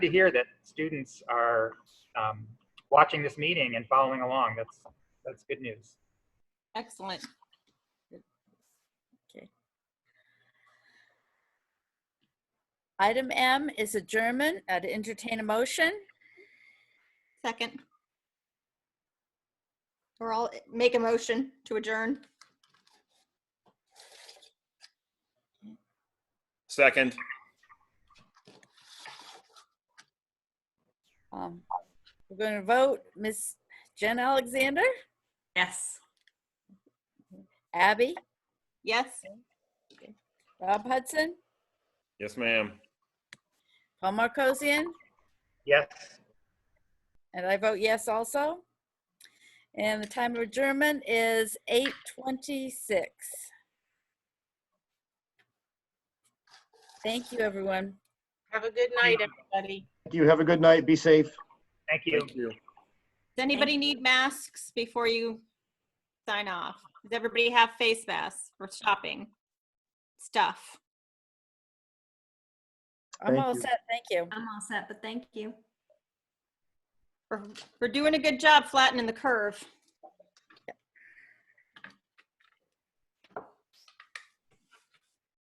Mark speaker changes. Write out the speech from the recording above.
Speaker 1: to hear that students are um, watching this meeting and following along. That's, that's good news.
Speaker 2: Excellent.
Speaker 3: Item M is adjournment. I'd entertain a motion.
Speaker 2: Second. Or I'll make a motion to adjourn.
Speaker 4: Second.
Speaker 3: Um, We're going to vote. Miss Jen Alexander,
Speaker 5: Yes.
Speaker 3: Abby,
Speaker 2: Yes?
Speaker 3: Rob Hudson,
Speaker 4: Yes, ma'am.
Speaker 3: Paul Marcosian,
Speaker 1: Yes.
Speaker 3: and I vote yes also. And the time of adjournment is 8:26. Thank you, everyone.
Speaker 6: Have a good night, everybody.
Speaker 7: Thank you. Have a good night. Be safe.
Speaker 1: Thank you.
Speaker 4: Thank you.
Speaker 2: Does anybody need masks before you sign off? Does everybody have face masks for shopping? Stuff.
Speaker 3: I'm
Speaker 7: Thank
Speaker 3: all
Speaker 7: you.
Speaker 3: set. Thank you.
Speaker 5: I'm all set, but thank you.
Speaker 2: We're, we're doing a good job flattening the curve.